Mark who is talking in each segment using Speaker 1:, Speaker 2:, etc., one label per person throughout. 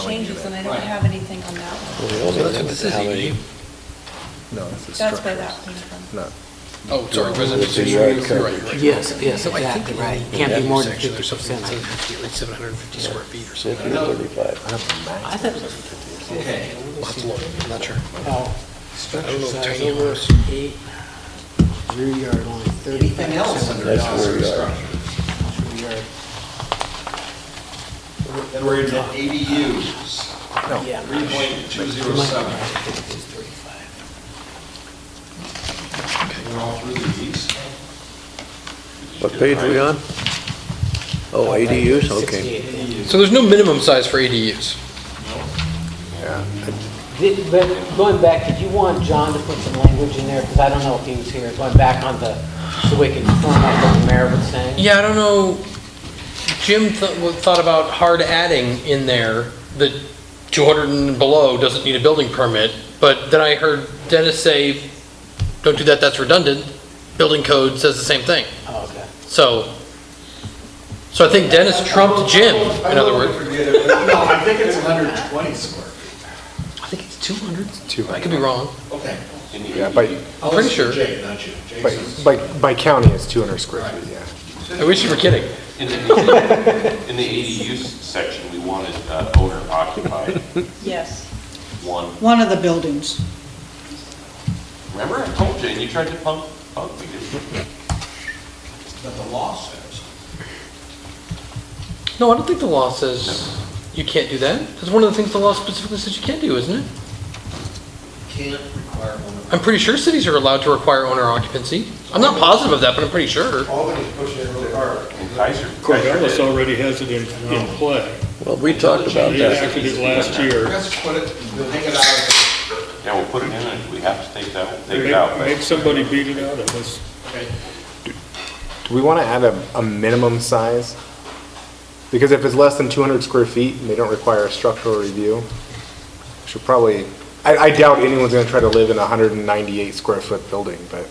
Speaker 1: changes, and I don't have anything on that one.
Speaker 2: So that's- this is EE.
Speaker 3: No, this is
Speaker 1: That's where
Speaker 3: structures.
Speaker 1: that came from.
Speaker 3: Not,
Speaker 2: Oh, sorry, residential,
Speaker 4: This is
Speaker 2: you're right,
Speaker 4: yard
Speaker 2: you're right.
Speaker 4: coverage.
Speaker 5: Yes, yes,
Speaker 2: So I think
Speaker 5: exactly,
Speaker 2: in
Speaker 5: right.
Speaker 2: the
Speaker 5: Can't be more than
Speaker 2: section, there's
Speaker 5: 50%, I
Speaker 2: something like
Speaker 5: think.
Speaker 2: 750, Like 750 square feet or
Speaker 4: Fifty
Speaker 2: something.
Speaker 4: to
Speaker 2: I don't know.
Speaker 4: thirty-five.
Speaker 5: I thought it was,
Speaker 2: Okay, we'll have to look, I'm not sure.
Speaker 5: oh,
Speaker 2: I don't
Speaker 5: structure
Speaker 2: know if
Speaker 5: size
Speaker 2: tiny
Speaker 5: over
Speaker 2: homes-
Speaker 5: eight, rear yard only thirty.
Speaker 6: Anything else under
Speaker 4: That's
Speaker 6: accessory
Speaker 4: where we are.
Speaker 6: structure? Then we're into ADUs,
Speaker 3: no.
Speaker 5: Yeah.
Speaker 6: three point two zero seven. We're all through these.
Speaker 4: What page are we on? Oh, ADUs, okay.
Speaker 5: Sixty-eight.
Speaker 6: ADUs.
Speaker 2: So there's no minimum size for ADUs.
Speaker 5: Did- But going back, did you want John to put some language in there? Because I don't know if he was here, going back on the, so we can firm up what the mayor was saying?
Speaker 2: Yeah, I don't know, Jim th- wa- thought about hard adding in there that 200 and below doesn't need a building permit, but then I heard Dennis say, don't do that, that's redundant. Building code says the same thing.
Speaker 5: Oh, okay.
Speaker 2: So, so I think Dennis trumped Jim, in other words.
Speaker 6: No, I think it's hundred and twenty square.
Speaker 2: I think it's 200. I could be wrong.
Speaker 6: Okay. Oh,
Speaker 7: Yeah, by,
Speaker 2: I'm pretty sure.
Speaker 6: Jay, not you. Jay
Speaker 7: by-
Speaker 6: says-
Speaker 7: by, by county, it's 200 square feet, yeah.
Speaker 2: I wish you were kidding.
Speaker 8: In the, in the- in the ADU section, we wanted uh, owner occupied
Speaker 1: Yes.
Speaker 8: one.
Speaker 9: one of the buildings.
Speaker 8: Remember, I told you, and you tried to pump, pump me, didn't you?
Speaker 6: But the law says.
Speaker 2: No, I don't think the law says you can't do that. That's one of the things the law specifically says you can't do, isn't it?
Speaker 6: Can't require one
Speaker 2: I'm pretty sure cities are allowed to require owner occupancy. I'm not positive of that, but I'm pretty sure.
Speaker 6: Albany's pushing it really hard.
Speaker 8: And Kaiser.
Speaker 10: Corvallis already has it in, in play.
Speaker 4: Well, we talked about
Speaker 10: They
Speaker 4: that.
Speaker 10: enacted it last year.
Speaker 6: Let's put it, take it out
Speaker 8: Yeah, we'll put it in, and if we have to take that, we'll take it out.
Speaker 10: Make, make somebody beat it out of us.
Speaker 7: Do we want to add a, a minimum size? Because if it's less than 200 square feet and they don't require a structural review, we should probably, I, I doubt anyone's going to try to live in a 198 square foot building, but,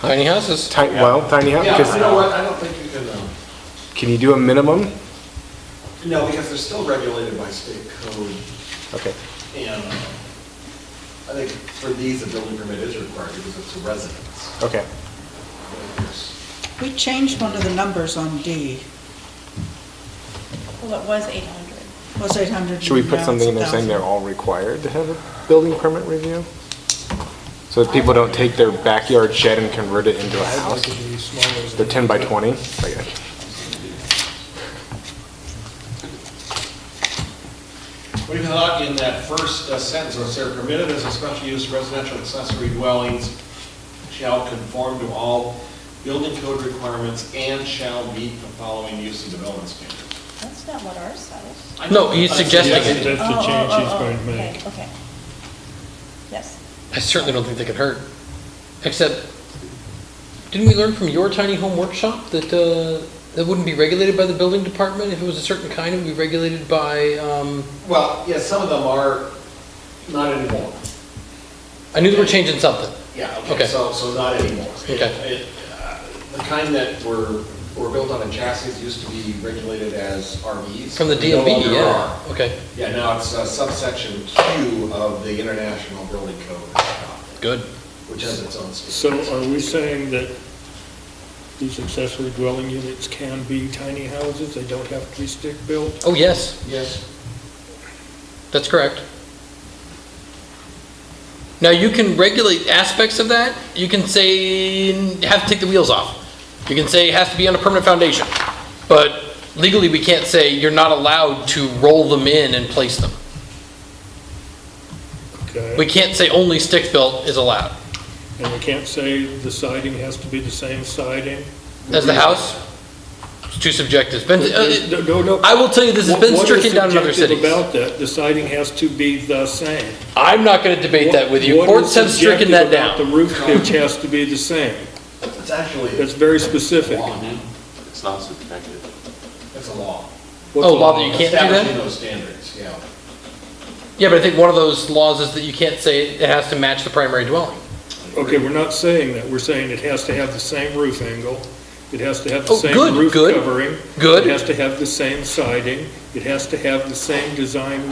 Speaker 2: Tiny houses.
Speaker 7: ti- well, tiny
Speaker 6: of.
Speaker 7: house,
Speaker 6: Yeah, you know
Speaker 7: because,
Speaker 6: what, I don't think you can, um,
Speaker 7: can you do a minimum?
Speaker 6: no, because they're still regulated by state code.
Speaker 7: Okay.
Speaker 6: And I think for these, a building permit is required because it's a residence.
Speaker 7: Okay.
Speaker 9: We changed one of the numbers on D,
Speaker 1: Well, it was 800.
Speaker 9: was 800.
Speaker 7: Should we
Speaker 9: now
Speaker 7: put
Speaker 9: it's
Speaker 7: something in there
Speaker 9: 1,000.
Speaker 7: saying they're all required to have a building permit review? So that people don't take their backyard shed and convert it into a house? They're 10 by 20? Like,
Speaker 6: What do you thought in that first uh, sentence, where it said permitted as a special use residential accessory dwellings shall conform to all building code requirements and shall meet the following use and development standards?
Speaker 1: That's not what ours says.
Speaker 6: I
Speaker 2: No,
Speaker 6: know-
Speaker 2: he's
Speaker 6: I
Speaker 2: suggesting it.
Speaker 6: suggested
Speaker 10: That's the
Speaker 1: Oh, oh,
Speaker 10: change
Speaker 1: oh,
Speaker 10: he's
Speaker 1: oh,
Speaker 10: going to make.
Speaker 1: Okay, okay. Yes.
Speaker 2: I certainly don't think they could hurt. Except, didn't we learn from your tiny home workshop that, uh, that wouldn't be regulated by the building department? If it was a certain kind, it would be regulated by, um,
Speaker 6: Well, yeah, some of them are not anymore.
Speaker 2: I knew they were changing something.
Speaker 6: Yeah,
Speaker 2: Okay.
Speaker 6: okay, so, so not anymore. It-
Speaker 2: Okay.
Speaker 6: it, uh, The kind that were, were built on a chassis used to be regulated as RVs.
Speaker 2: From the
Speaker 6: They no
Speaker 2: DMV,
Speaker 6: longer are.
Speaker 2: yeah. Okay,
Speaker 6: Yeah, now it's uh, subsection Q of the International Building Code,
Speaker 2: good.
Speaker 6: which has its own
Speaker 10: So
Speaker 6: standards.
Speaker 10: are we saying that these accessory dwelling units can be tiny houses? They don't have to be stick-built?
Speaker 2: Oh, yes,
Speaker 6: Yes.
Speaker 2: that's correct. Now, you can regulate aspects of that. You can say, have to take the wheels off. You can say it has to be on a permanent foundation. But legally, we can't say you're not allowed to roll them in and place them. We
Speaker 10: Okay.
Speaker 2: can't say only stick-built is allowed.
Speaker 10: And we can't say the siding has to be the same siding?
Speaker 2: As the house, it's too subjective. Been- uh, it-
Speaker 10: No, no, no.
Speaker 2: I will tell you, this has been
Speaker 10: What- what is
Speaker 2: stricken down in other
Speaker 10: subjective
Speaker 2: cities.
Speaker 10: about that? The siding has to be the same.
Speaker 2: I'm not going to debate that with you.
Speaker 10: What- what
Speaker 2: Courts
Speaker 10: is
Speaker 2: have stricken that
Speaker 10: subjective about
Speaker 2: down.
Speaker 10: The roof pitch has to be the same.
Speaker 6: It's actually.
Speaker 10: That's very specific.
Speaker 6: Law.
Speaker 8: It's not subjective.
Speaker 6: It's a law.
Speaker 10: What's
Speaker 2: Oh,
Speaker 10: a
Speaker 2: law that you can't do that?
Speaker 6: Establishing those standards, yeah.
Speaker 2: Yeah, but I think one of those laws is that you can't say it has to match the primary dwelling.
Speaker 10: Okay, we're not saying that, we're saying it has to have the same roof angle, It has to have the
Speaker 2: Oh,
Speaker 10: same
Speaker 2: good,
Speaker 10: roof
Speaker 2: good,
Speaker 10: covering.
Speaker 2: good.
Speaker 10: It has to have the same siding. It has to have the same design